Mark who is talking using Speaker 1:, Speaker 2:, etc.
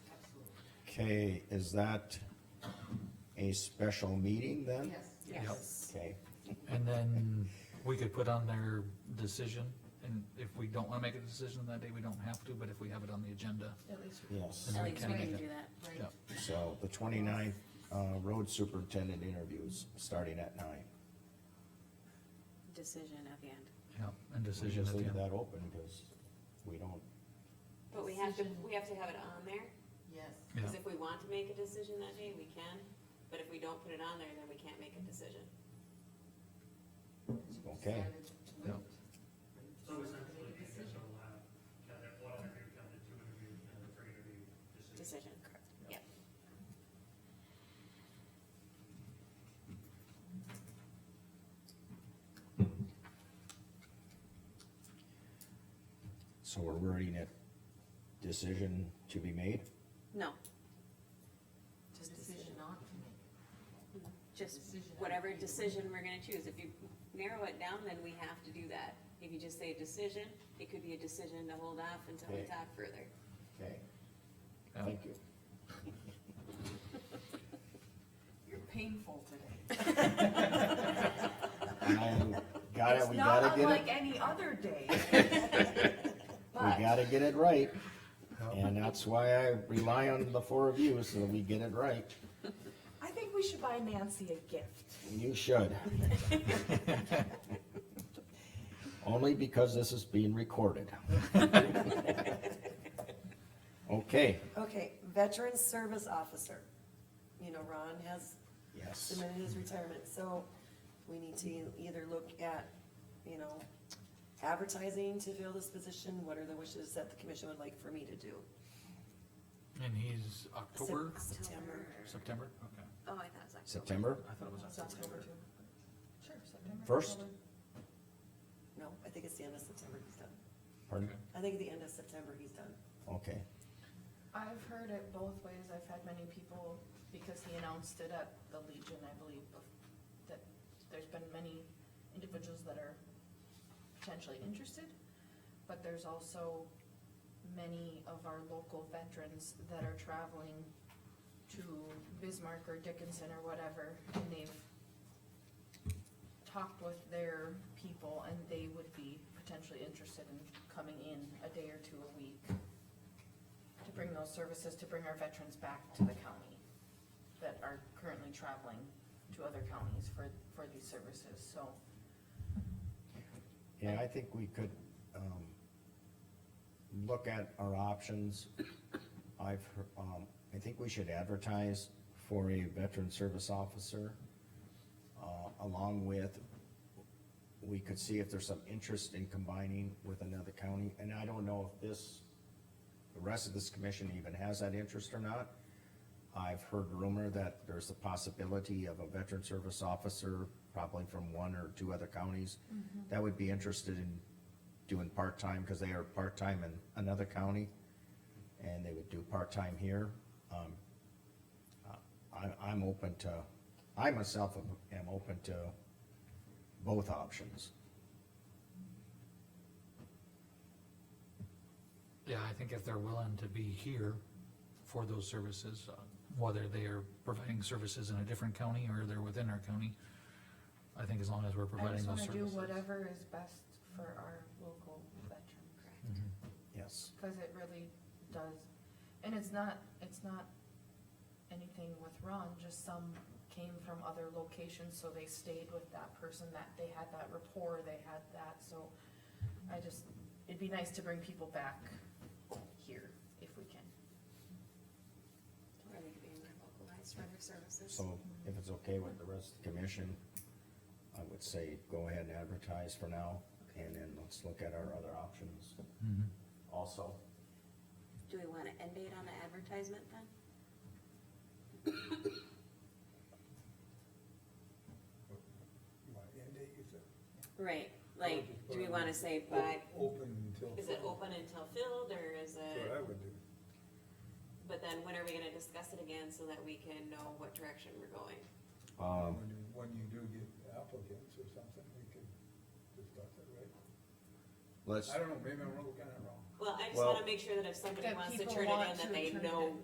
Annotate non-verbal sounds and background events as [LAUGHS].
Speaker 1: Okay, is that a special meeting then?
Speaker 2: Yes.
Speaker 3: Yes.
Speaker 1: Okay,
Speaker 3: And then we could put on their decision, and if we don't wanna make a decision that day, we don't have to, but if we have it on the agenda,
Speaker 2: At least,
Speaker 1: yes,
Speaker 3: then
Speaker 4: At
Speaker 3: we
Speaker 4: least
Speaker 3: can
Speaker 4: we
Speaker 3: make
Speaker 4: can do
Speaker 3: it.
Speaker 4: that.
Speaker 2: right,
Speaker 3: Yeah,
Speaker 1: so the twenty-ninth, uh, road superintendent interviews, starting at nine.
Speaker 4: Decision at the end.
Speaker 3: yeah, and
Speaker 1: We
Speaker 3: decision
Speaker 1: just
Speaker 3: at the
Speaker 1: leave
Speaker 3: end.
Speaker 1: that open, cause we don't,
Speaker 5: But we have to, we have to have it on there,
Speaker 2: yes.
Speaker 3: Yeah,
Speaker 5: because if we want to make a decision that day, we can, but if we don't put it on there, then we can't make a decision.
Speaker 1: Okay.
Speaker 3: Yeah.
Speaker 6: So essentially, you guys will have, kind of one interview, kind of two interviews, kind of three interview decisions.
Speaker 5: Decision, yep.
Speaker 1: so we're wording it, decision to be made?
Speaker 4: No,
Speaker 2: Just decision not to make.
Speaker 4: just,
Speaker 2: Decision on
Speaker 5: Whatever
Speaker 2: either one.
Speaker 5: decision we're gonna choose, if you narrow it down, then we have to do that. If you just say decision, it could be a decision to hold off until we
Speaker 1: Okay.
Speaker 5: talk further.
Speaker 1: Okay,
Speaker 3: yeah.
Speaker 1: thank you.
Speaker 2: You're painful today.
Speaker 1: I got it, we gotta get it,
Speaker 2: any other day.
Speaker 1: [LAUGHS] we gotta get it right,
Speaker 3: Yeah.
Speaker 1: and that's why I rely on the four of you, so we get it right.
Speaker 7: I think we should buy Nancy a gift.
Speaker 1: You should. Only because this is being recorded. Okay,
Speaker 8: Okay, veteran service officer. You know, Ron has
Speaker 1: yes,
Speaker 8: submitted his retirement, so we need to either look at, you know, advertising to fill this position, what are the wishes that the commission would like for me to do?
Speaker 3: And he's October,
Speaker 8: Sep- September.
Speaker 3: September, okay.
Speaker 4: oh, I thought it was October.
Speaker 1: September
Speaker 3: I thought it was
Speaker 7: September
Speaker 3: October.
Speaker 7: too. Sure, September.
Speaker 1: first,
Speaker 8: No, I think it's the end of September he's done.
Speaker 1: pardon,
Speaker 3: Okay.
Speaker 8: I think at the end of September he's done.
Speaker 1: okay,
Speaker 7: I've heard it both ways. I've had many people, because he announced it at the Legion, I believe, bef- that there's been many individuals that are potentially interested, but there's also many of our local veterans that are traveling to Bismarck or Dickinson or whatever, and they've talked with their people, and they would be potentially interested in coming in a day or two a week to bring those services, to bring our veterans back to the county that are currently traveling to other counties for, for these services, so.
Speaker 1: yeah, I think we could, um, look at our options. I've, hear- um, I think we should advertise for a veteran service officer, uh, along with, we could see if there's some interest in combining with another county, and I don't know if this, the rest of this commission even has that interest or not. I've heard rumor that there's a possibility of a veteran service officer, probably from one or two other counties, that would be interested in doing part-time, because they are part-time in another county, and they would do part-time here. Um, I, I'm open to, I myself am- am open to both options.
Speaker 3: Yeah, I think if they're willing to be here for those services, uh, whether they are providing services in a different county or they're within our county, I think as long as we're
Speaker 7: I
Speaker 3: providing
Speaker 7: just
Speaker 3: those
Speaker 7: wanna
Speaker 3: services.
Speaker 7: do whatever is best for our local veterans.
Speaker 3: Mm-hmm.
Speaker 1: Yes.
Speaker 7: Cause it really does, and it's not, it's not anything with Ron, just some came from other locations, so they stayed with that person, that they had that rapport, they had that, so I just, it'd be nice to bring people back here if we can.
Speaker 5: Or they could be more localized for their services.
Speaker 1: So if it's okay with the rest of the commission, I would say go ahead and advertise for now, and then let's look at our other options
Speaker 3: Mhm.
Speaker 1: also.
Speaker 4: Do we want an end date on the advertisement then?
Speaker 9: My end date is it?
Speaker 5: Right, like, do we wanna say
Speaker 9: O-
Speaker 5: by,
Speaker 9: Open until.
Speaker 5: is it open until filled, or is
Speaker 9: That's
Speaker 5: it?
Speaker 9: what I would do.
Speaker 5: But then when are we gonna discuss it again so that we can know what direction we're going?
Speaker 1: Um,
Speaker 9: When you, when you do get applicants or something, we could discuss it, right?
Speaker 1: let's.
Speaker 9: I don't know, maybe I'm looking at it wrong.
Speaker 5: Well, I just
Speaker 1: Well-
Speaker 5: wanna make sure that if somebody
Speaker 7: That
Speaker 5: wants to
Speaker 7: people
Speaker 5: turn it
Speaker 7: want
Speaker 5: in,
Speaker 7: to
Speaker 5: that they
Speaker 7: turn it
Speaker 5: know
Speaker 7: in.